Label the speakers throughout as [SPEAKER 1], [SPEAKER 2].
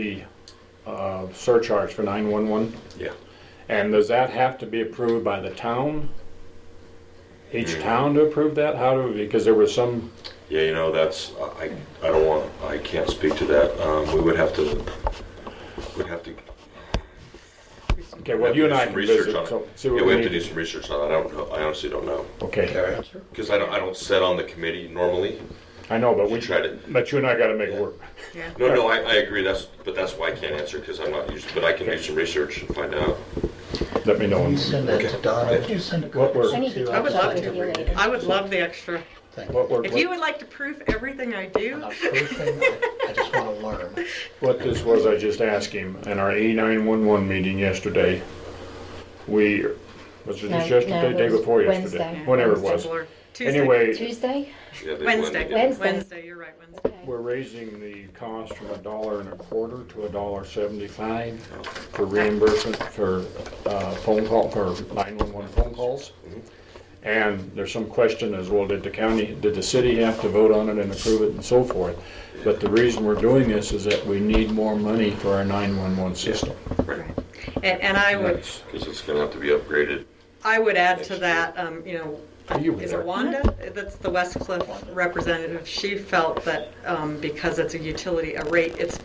[SPEAKER 1] the uh, surcharge for 911?
[SPEAKER 2] Yeah.
[SPEAKER 1] And does that have to be approved by the town? Each
[SPEAKER 2] Mm-hmm.
[SPEAKER 1] town to approve that? How do, because there was some,
[SPEAKER 2] Yeah, you know, that's, I, I don't want, I can't speak to that. Um, we would have to, we'd have to.
[SPEAKER 1] okay, well, you and I
[SPEAKER 2] do
[SPEAKER 1] can
[SPEAKER 2] some research
[SPEAKER 1] visit,
[SPEAKER 2] on it.
[SPEAKER 1] so see
[SPEAKER 2] Yeah,
[SPEAKER 1] what
[SPEAKER 2] we
[SPEAKER 1] we
[SPEAKER 2] have to do
[SPEAKER 1] need.
[SPEAKER 2] some research on it. I don't know, I honestly don't know.
[SPEAKER 1] Okay,
[SPEAKER 2] Because I don't, I don't sit on the committee normally.
[SPEAKER 1] I know, but
[SPEAKER 2] We
[SPEAKER 1] we,
[SPEAKER 2] try to,
[SPEAKER 1] but you and I gotta make work.
[SPEAKER 2] no, no, I, I agree, that's, but that's why I can't answer, because I'm not usually, but I can do some research and find out.
[SPEAKER 1] Let me know.
[SPEAKER 3] You send that to Donna, you send a
[SPEAKER 1] What
[SPEAKER 3] copy
[SPEAKER 1] we're-
[SPEAKER 4] I need
[SPEAKER 3] to
[SPEAKER 4] to talk
[SPEAKER 5] I would
[SPEAKER 3] us.
[SPEAKER 5] love
[SPEAKER 4] about it with you later.
[SPEAKER 5] to. I would love the extra.
[SPEAKER 3] Thank
[SPEAKER 1] What
[SPEAKER 3] you.
[SPEAKER 1] we're-
[SPEAKER 5] If you would like to proof everything I do,
[SPEAKER 3] Not proofing, I just want to learn.
[SPEAKER 1] What this was, I just asked him, in our A911 meeting yesterday, we, was it
[SPEAKER 4] No,
[SPEAKER 1] just
[SPEAKER 4] no,
[SPEAKER 1] yesterday,
[SPEAKER 4] it
[SPEAKER 1] day
[SPEAKER 4] was
[SPEAKER 1] before yesterday?
[SPEAKER 4] Wednesday.
[SPEAKER 1] Whenever it
[SPEAKER 4] Wednesday.
[SPEAKER 1] was.
[SPEAKER 5] or Tuesday.
[SPEAKER 1] Anyway,
[SPEAKER 4] Tuesday?
[SPEAKER 2] Yeah, they blend
[SPEAKER 5] Wednesday.
[SPEAKER 2] together.
[SPEAKER 4] Wednesday.
[SPEAKER 5] you're right, Wednesday.
[SPEAKER 1] we're raising the cost from a dollar and a quarter to a dollar seventy-five for reimbursement for, uh, phone call, for nine-one-one phone calls. And there's some question as well, did the county, did the city have to vote on it and approve it and so forth? But the reason we're doing this is that we need more money for our nine-one-one system.
[SPEAKER 2] Right.
[SPEAKER 5] And, and I would,
[SPEAKER 1] That's-
[SPEAKER 2] Because it's gonna have to be upgraded.
[SPEAKER 5] I would add to that, um, you know,
[SPEAKER 1] You were
[SPEAKER 5] is
[SPEAKER 1] there.
[SPEAKER 5] it Wanda? That's the West Cliff representative. She felt that, um, because it's a utility, a rate, it's,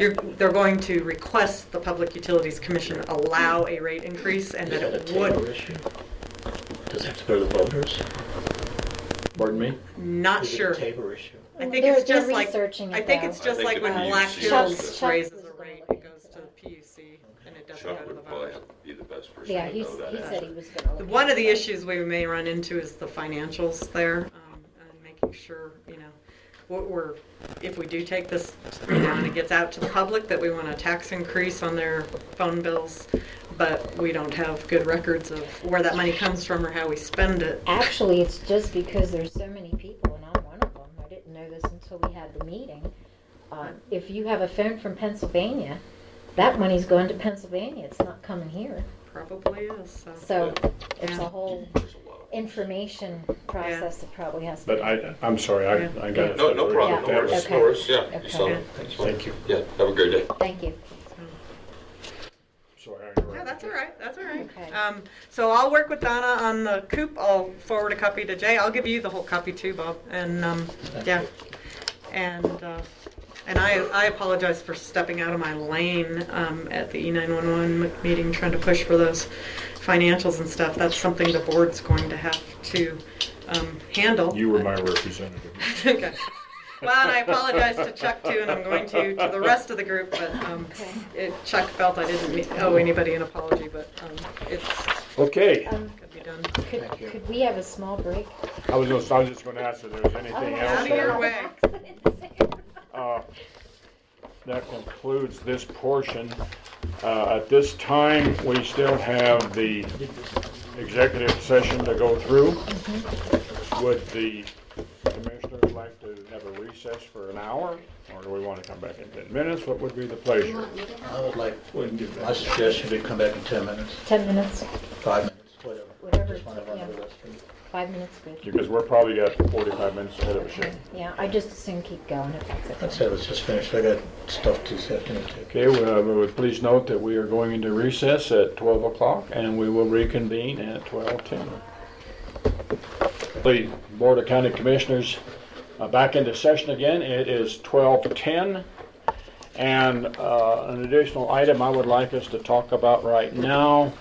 [SPEAKER 5] you're, they're going to request the Public Utilities Commission allow a rate increase and
[SPEAKER 3] Is
[SPEAKER 5] that
[SPEAKER 3] that a
[SPEAKER 5] it would
[SPEAKER 3] table issue? Does it have to go to the voters?
[SPEAKER 1] Pardon me?
[SPEAKER 5] Not
[SPEAKER 3] Is it a
[SPEAKER 5] sure.
[SPEAKER 3] Table issue.
[SPEAKER 5] I think
[SPEAKER 4] They're-
[SPEAKER 5] it's just
[SPEAKER 4] they're
[SPEAKER 5] like,
[SPEAKER 4] researching
[SPEAKER 5] I
[SPEAKER 4] it,
[SPEAKER 5] think
[SPEAKER 4] though.
[SPEAKER 5] it's
[SPEAKER 2] I
[SPEAKER 5] just
[SPEAKER 2] think
[SPEAKER 5] like
[SPEAKER 2] the
[SPEAKER 5] when
[SPEAKER 2] PUC
[SPEAKER 5] Black
[SPEAKER 2] is-
[SPEAKER 5] Hills
[SPEAKER 4] Chuck's-
[SPEAKER 5] raises
[SPEAKER 4] Chuck's
[SPEAKER 5] a rate,
[SPEAKER 4] was the
[SPEAKER 5] it goes to
[SPEAKER 4] one.
[SPEAKER 5] the PUC and it doesn't go
[SPEAKER 2] Chuck
[SPEAKER 5] to the
[SPEAKER 2] would probably
[SPEAKER 5] voters.
[SPEAKER 2] have to be the best person
[SPEAKER 4] Yeah,
[SPEAKER 2] to
[SPEAKER 4] he's,
[SPEAKER 2] know
[SPEAKER 4] he
[SPEAKER 2] that.
[SPEAKER 4] said he was gonna.
[SPEAKER 5] The-
[SPEAKER 4] look
[SPEAKER 5] One of
[SPEAKER 4] into
[SPEAKER 5] the
[SPEAKER 4] it.
[SPEAKER 5] issues we may run into is the financials there, um, and making sure, you know, what we're, if we do take this, you know, and it gets out to the public, that we want a tax increase on their phone bills, but we don't have good records of where that money comes from or how we spend it.
[SPEAKER 4] Actually, it's just because there's so many people, and I'm one of them, I didn't know this until we had the meeting. Um, If you have a phone from Pennsylvania, that money's going to Pennsylvania, it's not coming here.
[SPEAKER 5] Probably is, so.
[SPEAKER 4] So it's a
[SPEAKER 5] Yeah.
[SPEAKER 4] whole
[SPEAKER 2] There's a lot.
[SPEAKER 4] information process that probably has to.
[SPEAKER 1] But I, I'm sorry, I, I got. it.
[SPEAKER 2] No, no problem, no
[SPEAKER 4] Yeah,
[SPEAKER 2] worries, no
[SPEAKER 4] okay.
[SPEAKER 2] worries, yeah.
[SPEAKER 4] Okay.
[SPEAKER 2] you saw it. That's fine.
[SPEAKER 1] Thank you.
[SPEAKER 2] Yeah, have a great day.
[SPEAKER 4] Thank you.
[SPEAKER 1] Sorry, I
[SPEAKER 5] No,
[SPEAKER 1] interrupted.
[SPEAKER 5] that's all right, that's all right.
[SPEAKER 4] Okay.
[SPEAKER 5] Um, so I'll work with Donna on the coop, I'll forward a copy to Jay, I'll give you the whole copy too, Bob, and, um, yeah. And, uh, and I, I apologize for stepping out of my lane, um, at the E nine one one meeting, trying to push for those financials and stuff, that's something the board's going to have to, um, handle.
[SPEAKER 1] You were my representative.
[SPEAKER 5] Okay. Well, and I apologize to Chuck too, and I'm going to, to the rest of the group, but um,
[SPEAKER 4] Okay.
[SPEAKER 5] it- Chuck felt I didn't me- owe anybody an apology, but um, it's,
[SPEAKER 1] Okay,
[SPEAKER 4] Um,
[SPEAKER 5] could be done.
[SPEAKER 4] could,
[SPEAKER 3] Thank you.
[SPEAKER 4] could we have a small break? Oh,
[SPEAKER 1] I was just, I was just gonna ask if there was anything
[SPEAKER 5] Out
[SPEAKER 1] else
[SPEAKER 5] of your
[SPEAKER 1] there.
[SPEAKER 5] way.
[SPEAKER 1] Uh, That concludes this portion. Uh, At this time, we still have the executive session to go through. Would the commissioners like to have a recess for an hour? Or do we want to come back in 10 minutes? What would be the pleasure?
[SPEAKER 3] I would like, my suggestion would be come back in 10 minutes,
[SPEAKER 4] Ten minutes,
[SPEAKER 3] five minutes, whatever.
[SPEAKER 4] Whatever,
[SPEAKER 3] Just wanna run
[SPEAKER 4] yeah.
[SPEAKER 3] the restroom.
[SPEAKER 4] five minutes, good.
[SPEAKER 1] Because we're probably got 45 minutes ahead of us here.
[SPEAKER 4] Yeah, I just assume keep going if that's okay.
[SPEAKER 3] I'd say let's just finish, I got stuff to this afternoon too.
[SPEAKER 1] Okay, well, uh, we would please note that we are going into recess at 12 o'clock, and we will reconvene at 12:10. The Board of County Commissioners uh, back into session again. It is 12:10. And uh, an additional item I would like us to talk about right now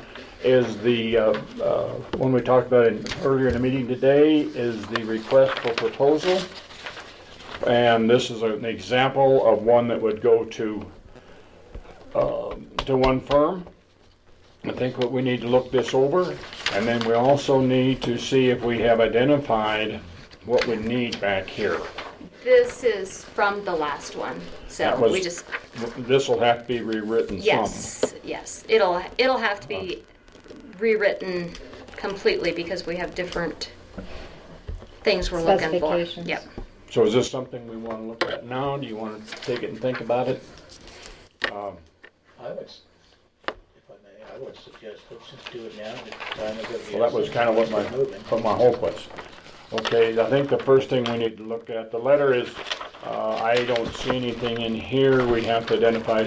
[SPEAKER 1] is the, uh, uh, one we talked about in- earlier in the meeting today, is the request for proposal. And this is an example of one that would go to um, to one firm. I think what we need to look this over, and then we also need to see if we have identified what we need back here.
[SPEAKER 6] This is from the last one,
[SPEAKER 1] That
[SPEAKER 6] so
[SPEAKER 1] was-
[SPEAKER 6] we just,
[SPEAKER 1] This will have to be rewritten some.
[SPEAKER 6] yes, yes, it'll, it'll have to be rewritten completely because we have different things we're looking for.
[SPEAKER 4] Specifications.
[SPEAKER 6] Yep,
[SPEAKER 1] So is this something we want to look at now? Do you want to take it and think about it? Um,
[SPEAKER 3] I would, s- if I may, I would suggest let's just do it now, the time is of the
[SPEAKER 1] Well, that was kind of what my,
[SPEAKER 3] essence. Moving.
[SPEAKER 1] what my hope was. Okay, I think the first thing we need to look at, the letter is Uh, I don't see anything in here. We have to identify